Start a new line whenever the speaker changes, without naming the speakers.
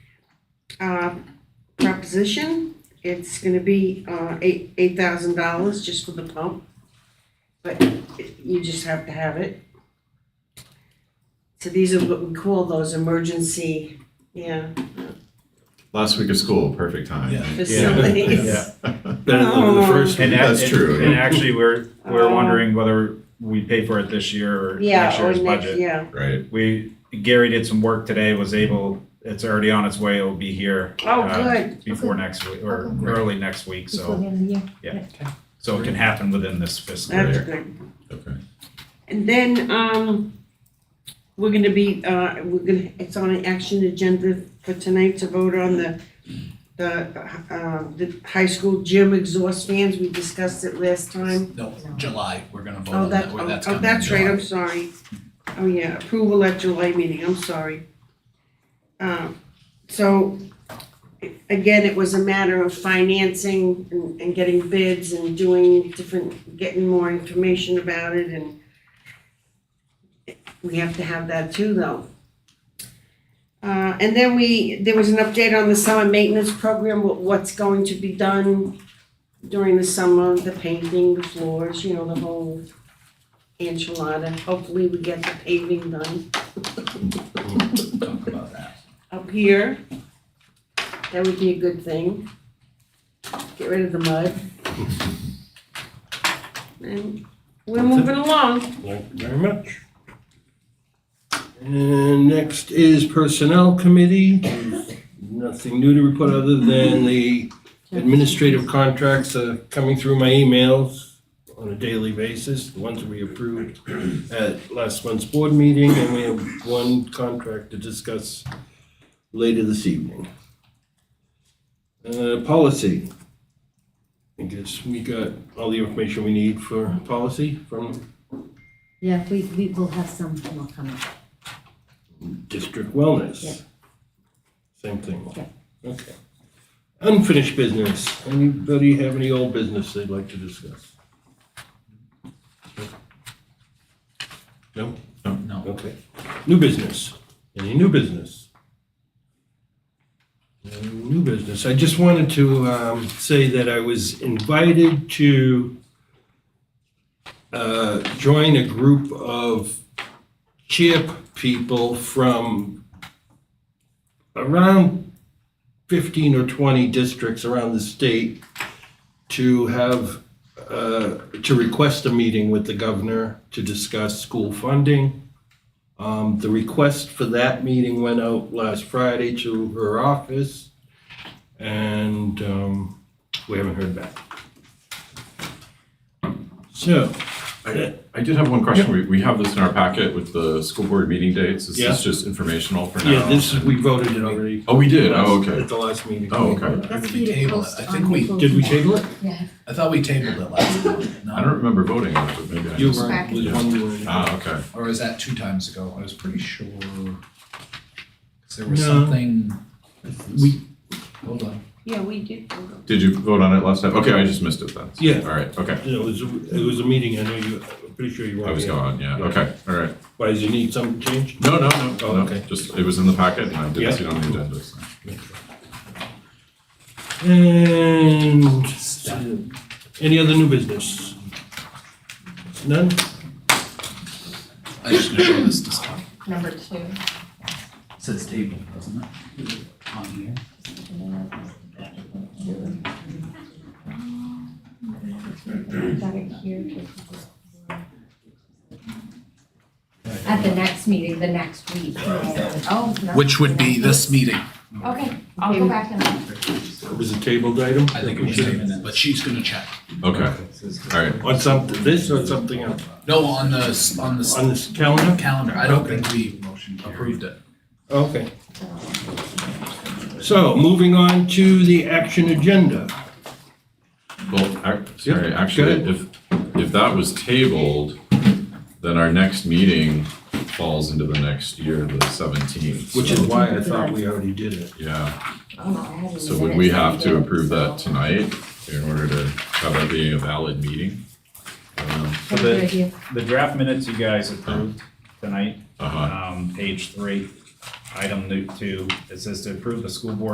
uh, proposition. It's gonna be, uh, eight, eight thousand dollars just for the pump. But it- you just have to have it. So these are what we call those emergency, yeah,
Last week of school, perfect time.
Yeah.
facilities.
Yeah.
Better than the first one.
And
That's
act-
true.
And actually, we're,
Oh.
we're wondering whether we pay for it this year or next
Yeah, or
year's
next,
budget.
yeah.
Right,
We, Gary did some work today, was able, it's already on its way, it'll be here.
Oh,
uh,
good.
Before next week, or
Okay.
early next week,
Before
so,
the end of the year.
so it can happen within this fiscal
That's
year.
good.
okay.
And then, um, we're gonna be, uh, we're gonna, it's on an action agenda for tonight to vote on the, the, uh, the high school gym exhaust fans, we discussed it last time.
No, July, we're gonna vote
Oh,
on
that,
that,
oh,
where that's
oh,
coming in
that's right,
July.
I'm sorry. Oh, yeah, approval at July meeting, I'm sorry. Um, so, again, it was a matter of financing and, and getting bids and doing different, getting more information about it and we have to have that too, though. Uh, and then we, there was an update on the summer maintenance program, what, what's going to be done during the summer, the painting, the floors, you know, the whole enchilada. Hopefully we get the paving done
Talk about that.
up here. That would be a good thing. Get rid of the mud. And we're moving along.
Thank you very much. And next is Personnel Committee. Nothing new to report other than the administrative contracts are coming through my emails on a daily basis, the ones we approved at last month's board meeting, and we have one contract to discuss later this evening. Uh, policy. I guess we got all the information we need for policy from
Yeah, we, we will have some more coming.
District Wellness.
Yeah.
Same thing.
Yeah.
Okay. Unfinished business. Anybody have any old business they'd like to discuss? No?
No.
Okay. New business. Any new business? No New business. I just wanted to um, say that I was invited to uh, join a group of CHIP people from around 15 or 20 districts around the state to have, uh, to request a meeting with the governor to discuss school funding. Um, The request for that meeting went out last Friday to her office, and um, we haven't heard back. So,
I, I did have one question. We, we have this in our packet with the school board meeting dates. Is
Yeah.
this just informational for now?
yeah, this, we voted it already.
Oh, we did? Oh,
At
okay.
the last meeting.
Oh, okay.
Or
That's
did
for
we
you to
table it?
post
I
on
think we-
Google
Did we
Doc.
table it?
Yeah.
I thought we tabled it last time, no?
I don't remember voting on it, but maybe I
You
just.
were,
Back.
was one you were in.
Ah, okay.
Or was that two times ago? I was pretty sure. 'Cause there was
No.
something,
We,
hold on.
Yeah, we did.
Did you vote on it last time? Okay, I just missed it then.
Yeah.
All right, okay.
it was, it was a meeting, I know you, I'm pretty sure you were.
I was gone, yeah.
Yeah.
Okay, all right.
Why, does you need something changed?
No, no, no,
Oh,
no.
okay.
Just, it was in the packet and I
Yeah.
didn't see it on the agenda. so.
And so, any other new business? None?
I just know this is tough.
Number two.
Says table, doesn't it? On here.
Got it here. At the next meeting, the next week. Oh, no.
Which would be this meeting.
Okay, I'll go back and.
It was a tabled item?
I think it was tabled, but she's gonna check.
Okay, all right.
On something, this or something else?
No, on the, s- on the
On
s-
this calendar?
calendar, I don't
Okay.
think we approved it.
Okay. So, moving on to the action agenda.
Well, ac- sorry, actually,
ahead.
if, if that was tabled, then our next meeting falls into the next year, the seventeenth.
Which is why I thought we already did it.
Yeah,
Oh, I haven't
so
done
would
it
we
since
have to
then,
approve that
so-
tonight in order to have that being a valid meeting? Um, I don't know.
Have a good idea.
The draft minutes you guys approved tonight,
Uh-huh.
um, page three, item two, it says to approve the school board